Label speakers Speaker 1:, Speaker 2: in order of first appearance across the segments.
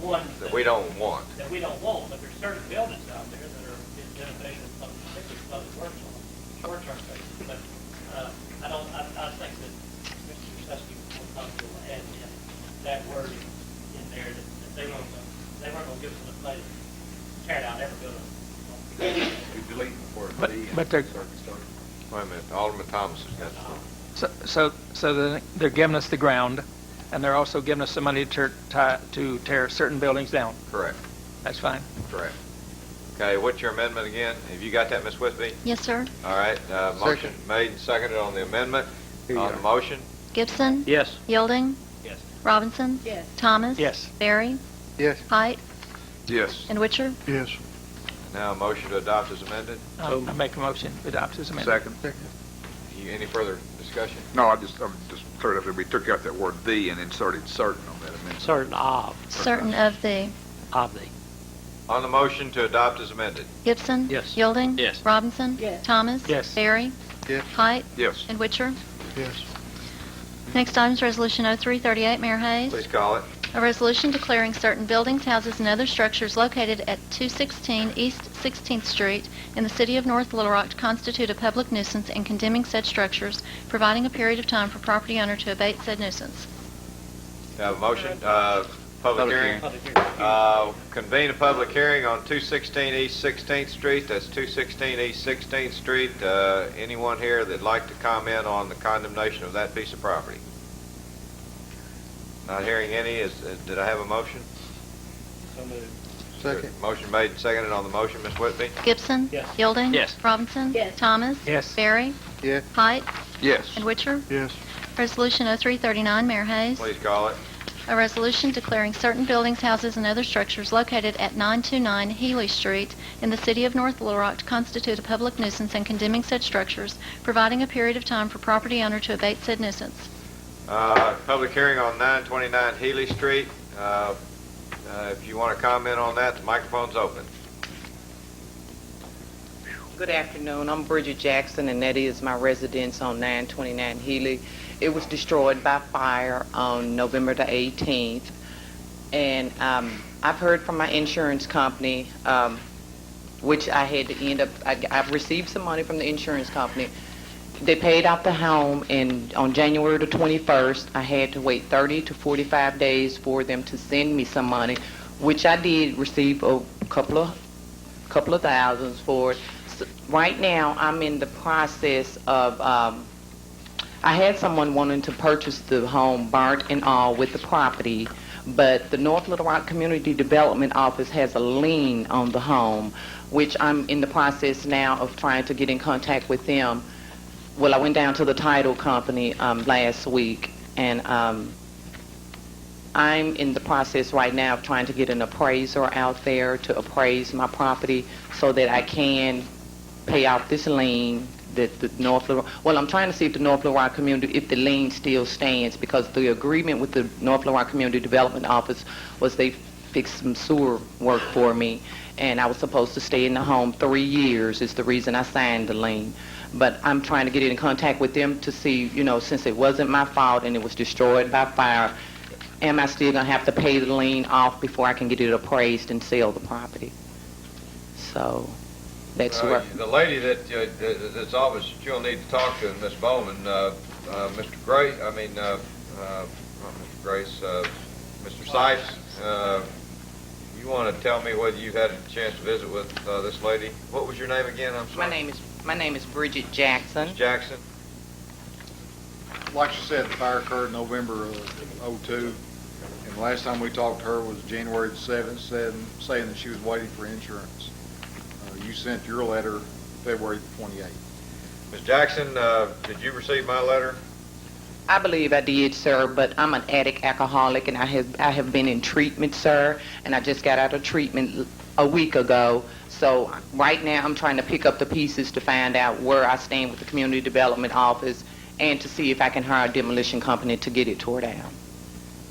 Speaker 1: ones
Speaker 2: that we don't want.
Speaker 1: that we don't want, but there's certain buildings out there that are in dedicated, public- particularly public works on a short-term basis, but, uh, I don't, I, I think that Mr. Suskey will probably will add in that word in there, that, that they weren't, gonna- they weren't gonna give us a place, to tear down every building.
Speaker 3: We delete the word
Speaker 4: But-
Speaker 3: "the" and
Speaker 4: but they're-
Speaker 3: insert "construction."
Speaker 2: Wait a minute, Alderman Thomas has got
Speaker 1: Uh,
Speaker 2: something.
Speaker 4: So, so, so the- they're giving us the ground, and they're also giving us some money to, tear- ti- to tear certain buildings down.
Speaker 2: Correct,
Speaker 4: That's fine.
Speaker 2: correct. Okay, what's your amendment again? Have you got that, Ms. Whitby?
Speaker 5: Yes, sir.
Speaker 2: All right, uh, motion made and seconded on the amendment. On the motion,
Speaker 5: Gibson?
Speaker 4: Yes.
Speaker 5: Yielding?
Speaker 1: Yes.
Speaker 5: Robinson?
Speaker 6: Yes.
Speaker 5: Thomas?
Speaker 4: Yes.
Speaker 5: Barry?
Speaker 7: Yes.
Speaker 5: Height?
Speaker 2: Yes.
Speaker 5: And Witcher?
Speaker 7: Yes.
Speaker 2: now a motion to adopt as amended.
Speaker 4: I I make a motion, to adopt as amended.
Speaker 8: Second.
Speaker 2: You- Any further discussion?
Speaker 8: No, I just, I'm just cleared up, that we took out that word "the" and inserted "certain" on that amendment.
Speaker 9: certain of,
Speaker 5: Certain of the
Speaker 9: of the.
Speaker 2: On the motion to adopt as amended,
Speaker 5: Gibson?
Speaker 9: Yes.
Speaker 5: Yielding?
Speaker 9: Yes.
Speaker 5: Robinson?
Speaker 6: Yes.
Speaker 5: Thomas?
Speaker 4: Yes.
Speaker 5: Barry?
Speaker 7: Yes.
Speaker 5: Height?
Speaker 8: Yes.
Speaker 5: And Witcher?
Speaker 7: Yes.
Speaker 5: Next item is Resolution 0338, Mayor Hayes.
Speaker 2: please call it.
Speaker 5: A resolution declaring certain buildings, houses, and other structures located at 216 East 16th Street in the city of North Little Rock to constitute a public nuisance and condemning said structures, providing a period of time for property owner to abate said nuisance.
Speaker 2: Have a motion, uh, public hearing.
Speaker 1: Public hearing.
Speaker 2: Uh, Convene a public hearing on 216 East 16th Street. That's 216 East 16th Street. Uh, Anyone here that'd like to comment on the condemnation of that piece of property? Not hearing any, is, uh, did I have a motion?
Speaker 1: So moved.
Speaker 7: Second.
Speaker 2: Motion made and seconded on the motion, Ms. Whitby?
Speaker 5: Gibson?
Speaker 1: Yes.
Speaker 5: Yielding?
Speaker 9: Yes.
Speaker 5: Robinson?
Speaker 6: Yes.
Speaker 5: Thomas?
Speaker 4: Yes.
Speaker 5: Barry?
Speaker 7: Yes.
Speaker 5: Height?
Speaker 8: Yes.
Speaker 5: And Witcher?
Speaker 7: Yes.
Speaker 5: Resolution 0339, Mayor Hayes.
Speaker 2: Please call it.
Speaker 5: A resolution declaring certain buildings, houses, and other structures located at 929 Healy Street in the city of North Little Rock to constitute a public nuisance and condemning said structures, providing a period of time for property owner to abate said nuisance.
Speaker 2: Uh, Public hearing on 929 Healy Street. Uh, uh, If you want to comment on that, the microphone's open.
Speaker 10: Good afternoon. I'm Bridget Jackson, and that is my residence on 929 Healy. It was destroyed by fire on November the 18th. And um, I've heard from my insurance company, um, which I had to end up, I- I've received some money from the insurance company. They paid out the home, and on January the 21st, I had to wait 30 to 45 days for them to send me some money, which I did receive a couple of, couple of thousands for it. S- Right now, I'm in the process of, um, I had someone wanting to purchase the home burnt and all with the property, but the North Little Rock Community Development Office has a lien on the home, which I'm in the process now of trying to get in contact with them. Well, I went down to the title company um, last week, and um, I'm in the process right now of trying to get an appraiser out there to appraise my property so that I can pay off this lien that the North Little, well, I'm trying to see if the North Little Rock community, if the lien still stands, because the agreement with the North Little Rock Community Development Office was they fixed some sewer work for me, and I was supposed to stay in the home three years, is the reason I signed the lien. But I'm trying to get in contact with them to see, you know, since it wasn't my fault and it was destroyed by fire, am I still gonna have to pay the lien off before I can get it appraised and sell the property? So, that's
Speaker 2: Uh,
Speaker 10: where...
Speaker 2: The lady that, uh, that- that's obvious that you'll need to talk to, Miss Bowman, uh, uh, Mr. Gray, I mean, uh, uh, not Mr. Grace, uh, Mr. Sipes, uh, you want to tell me whether you've had a chance to visit with, uh, this lady? What was your name again? I'm sorry.
Speaker 10: My name is, my name is Bridget Jackson.
Speaker 2: Ms. Jackson?
Speaker 3: Like she said, the fire occurred November of '02, and the last time we talked to her was January the 7th, said- saying that she was waiting for insurance. Uh, You sent your letter February the 28th.
Speaker 2: Ms. Jackson, uh, did you receive my letter?
Speaker 10: I believe I did, sir, but I'm an addict alcoholic, and I have, I have been in treatment, sir, and I just got out of treatment l- a week ago. So right now, I'm trying to pick up the pieces to find out where I stand with the Community Development Office and to see if I can hire a demolition company to get it tore down.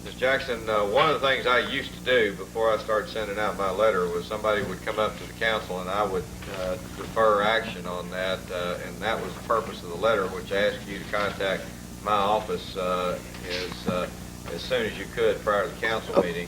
Speaker 2: Ms. Jackson, uh, one of the things I used to do before I started sending out my letter was somebody would come up to the council and I would uh, defer action on that, uh, and that was the purpose of the letter, which asked you to contact my office uh, as, uh, as soon as you could prior to the council meeting.